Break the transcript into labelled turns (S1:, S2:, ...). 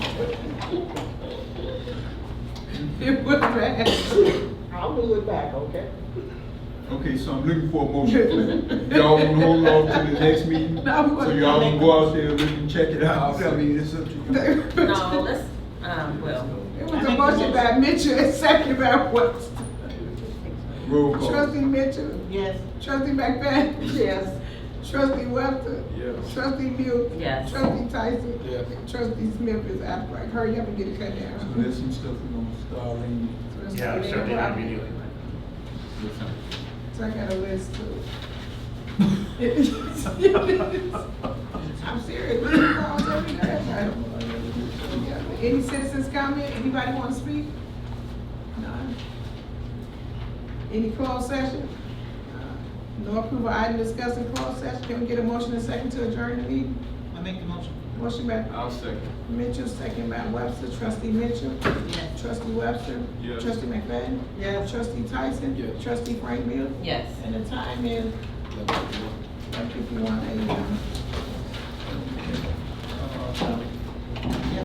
S1: It was bad.
S2: I'll do it back, okay?
S3: Okay, so I'm looking for a motion. Y'all wanna hold off to the next meeting?
S1: No, we-
S3: So y'all wanna go out there and really check it out? I mean, it's up to you.
S4: No, let's, um, well,
S1: It was a motion by Mitchell and second by what?
S3: Roll call.
S1: Trustee Mitchell,
S2: Yes.
S1: trustee McFadden,
S4: yes,
S1: trustee Webster,
S3: Yes.
S1: trustee Mew,
S4: yes.
S1: trustee Tyson,
S3: Yes.
S1: and trustee Smith is out, like, hurry up and get it cut
S3: So
S1: down.
S3: there's some stuff we're gonna start in.
S5: Yeah, I'm sure they have video.
S1: So I got a list too. I'm serious, we calls every day, everybody. Yeah, Any citizens comment, anybody wanna speak? None. Any closed session? Uh, No approval item discussed in closed session, can we get a motion and second to adjourn the meeting?
S2: I make the motion.
S1: Motion by
S3: I'll second.
S1: Mitchell, second by Webster, trustee Mitchell,
S2: Yes.
S1: trustee Webster.
S3: Yes.
S1: Trustee McFadden.
S2: Yes.
S1: Trustee Tyson.
S3: Yes.
S1: Trustee Frank Mills.
S4: Yes.
S1: And the time is eleven fifty-one AM.
S3: Uh,